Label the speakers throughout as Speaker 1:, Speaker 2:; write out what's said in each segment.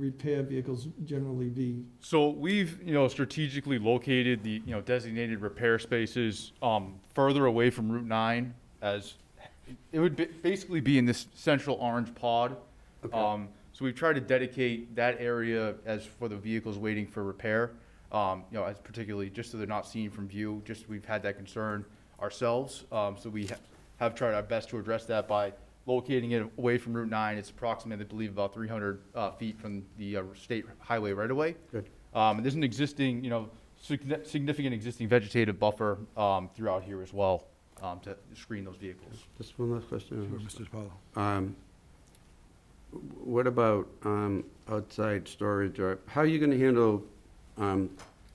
Speaker 1: repair vehicles generally be?
Speaker 2: So we've, you know, strategically located the, you know, designated repair spaces um, further away from Route 9 as, it would ba- basically be in this central orange pod. Um, So we've tried to dedicate that area as for the vehicles waiting for repair, um, you know, as particularly, just so they're not seen from view, just we've had that concern ourselves. Um, So we ha- have tried our best to address that by locating it away from Route 9. It's approximately, I believe, about 300 uh, feet from the uh, state highway right away.
Speaker 3: Good.
Speaker 2: Um, and there's an existing, you know, signi- significant existing vegetative buffer, um, throughout here as well, um, to screen those vehicles.
Speaker 3: Just one last question.
Speaker 4: Mr. DiPaolo.
Speaker 3: Um, wh- What about um, outside storage, or how are you going to handle um,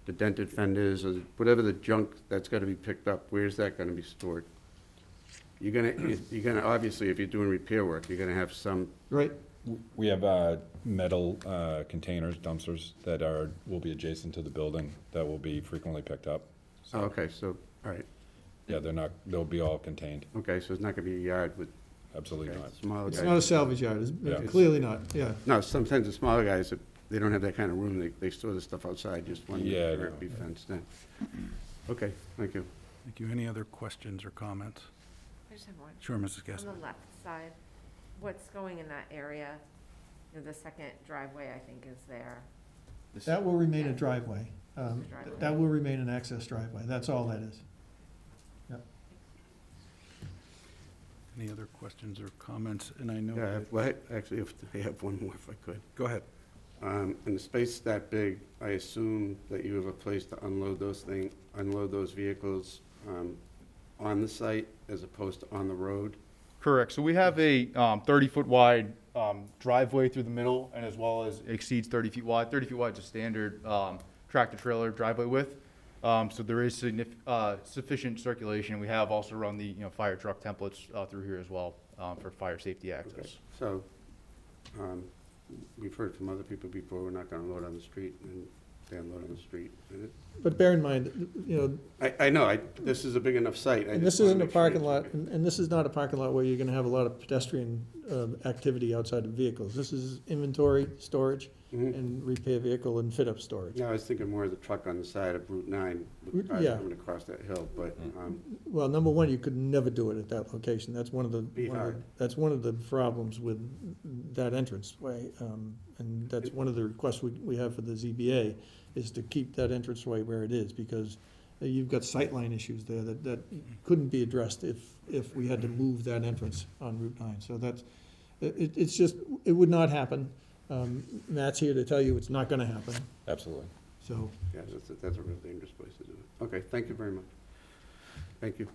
Speaker 3: the dented fenders or whatever the junk that's got to be picked up? Where's that going to be stored? You're going to, you're going to, obviously, if you're doing repair work, you're going to have some,
Speaker 1: Right,
Speaker 4: We have uh, metal uh, containers, dumpsters that are, will be adjacent to the building that will be frequently picked up.
Speaker 3: oh, okay, so, all right,
Speaker 4: Yeah, they're not, they'll be all contained,
Speaker 3: okay, so it's not going to be a yard with
Speaker 4: absolutely
Speaker 3: okay,
Speaker 4: not.
Speaker 5: Oh,
Speaker 3: smaller
Speaker 1: it's not a
Speaker 3: guys.
Speaker 1: salvage yard,
Speaker 4: Yeah.
Speaker 1: it's clearly not, yeah.
Speaker 3: No, sometimes the smaller guys, if they don't have that kind of room, they, they store the stuff outside, just one,
Speaker 4: Yeah, I
Speaker 3: they're
Speaker 4: know.
Speaker 3: be fenced in. Okay, thank you.
Speaker 6: Thank you. Any other questions or comments?
Speaker 5: I just have one.
Speaker 6: Sure, Mrs.
Speaker 5: On
Speaker 6: Gaspar.
Speaker 5: the left side, what's going in that area? You know, The second driveway, I think, is there.
Speaker 1: That will remain a driveway. Um,
Speaker 5: It's a driveway.
Speaker 1: That will remain an access driveway, that's all that is.
Speaker 6: Any other questions or comments? And I know,
Speaker 3: Yeah, I
Speaker 6: that-
Speaker 3: have- well, I- actually, if- I have one more if I could.
Speaker 6: go ahead.
Speaker 3: Um, In a space that big, I assume that you have a place to unload those thing, unload those vehicles um, on the site as opposed to on the road?
Speaker 2: Correct, so we have a, um, thirty-foot wide, um, driveway through the middle, and as well as exceeds thirty feet wide, thirty feet wide is a standard, um, tractor-trailer driveway width. Um, so there is signif, uh, sufficient circulation, we have also run the, you know, fire truck templates, uh, through here as well, um, for fire safety access.
Speaker 3: So, um, we've heard from other people before, we're not gonna load on the street, and they unload on the street. And it-
Speaker 1: But bear in mind, you know,
Speaker 3: I, I know, I, this is a big enough site. I
Speaker 1: and this
Speaker 3: just wanna
Speaker 1: isn't a
Speaker 3: make sure
Speaker 1: parking
Speaker 3: it's
Speaker 1: lot,
Speaker 3: okay.
Speaker 1: and and this is not a parking lot where you're gonna have a lot of pedestrian um, activity outside of vehicles. This is inventory, storage,
Speaker 3: Mhm.
Speaker 1: and repair vehicle and fit-up storage.
Speaker 3: No, I was thinking more of the truck on the side of Route 9, with
Speaker 1: Route-
Speaker 3: cars
Speaker 1: yeah.
Speaker 3: coming across that hill, but, um,
Speaker 1: Well, number one, you could never do it at that location. That's one of the,
Speaker 3: Be
Speaker 1: one of the-
Speaker 3: hard.
Speaker 1: that's one of the problems with that entranceway. um, And that's one of the requests we, we have for the ZBA, is to keep that entranceway where it is, because you've got sightline issues there that, that couldn't be addressed if, if we had to move that entrance on Route nine. So that's, it, it's just, it would not happen. Um, Matt's here to tell you it's not gonna happen,
Speaker 4: Absolutely.
Speaker 1: so.
Speaker 3: yeah, that's, a- that's a real dangerous place to do it. Okay, thank you very much. Thank you.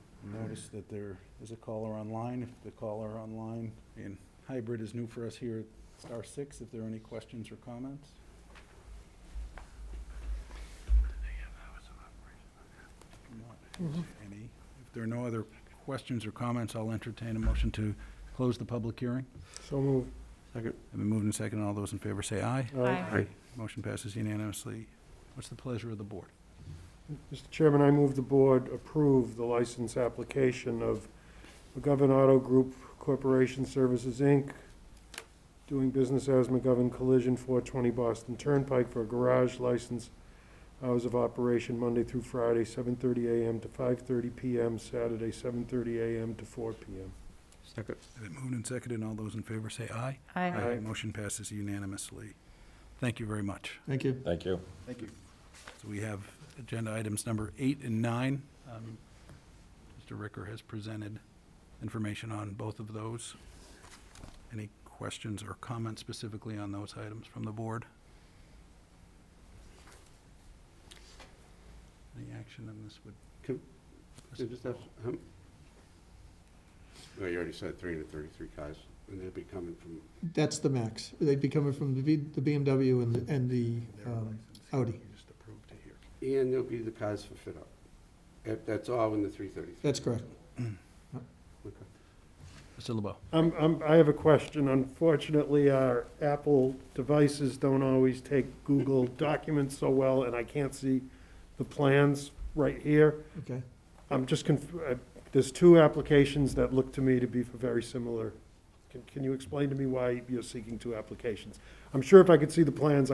Speaker 6: Notice that there is a caller online, if the caller online, and hybrid is new for us here at Star Six, if there are any questions or comments? Not Any. If there are no other questions or comments, I'll entertain a motion to close the public hearing.
Speaker 1: So move.
Speaker 3: Second.
Speaker 6: I've been moved and seconded. All those in favor say aye.
Speaker 3: Aye.
Speaker 6: Motion passes unanimously. What's the pleasure of the board?
Speaker 7: Mr. Chairman, I move the board approve the license application of McGovern Auto Group Corporation Services, Inc., doing business as McGovern Collision, 420 Boston Turnpike for a garage license, hours of operation Monday through Friday, 7:30 a.m. to 5:30 p.m., Saturday, 7:30 a.m. to 4 p.m.
Speaker 3: Second.
Speaker 6: I've been moved and seconded. All those in favor say aye.
Speaker 3: Aye.
Speaker 6: Motion passes unanimously. Thank you very much.
Speaker 1: Thank you.
Speaker 4: Thank you.
Speaker 2: Thank you.
Speaker 6: So we have agenda items number eight and nine. Um, Mr. Ricker has presented information on both of those. Any questions or comments specifically on those items from the board? Any action on this would?
Speaker 3: Can- So just have, how m- well, you already said 333 cars, and they'd be coming from,
Speaker 1: That's the max. They'd be coming from the B- the BMW and the, and the, um, Audi.
Speaker 6: Just approved to here.
Speaker 3: and there'll be the cars for fit-up. That- That's all in the 333.
Speaker 1: that's correct.
Speaker 3: Okay.
Speaker 6: Mr. LeBeau.
Speaker 7: I'm, I'm, I have a question. Unfortunately, our Apple devices don't always take Google documents so well, and I can't see the plans right here.
Speaker 1: Okay.
Speaker 7: I'm just conf, uh, there's two applications that look to me to be for very similar Can, can you explain to me why you're seeking two applications? I'm sure if I could see the plans,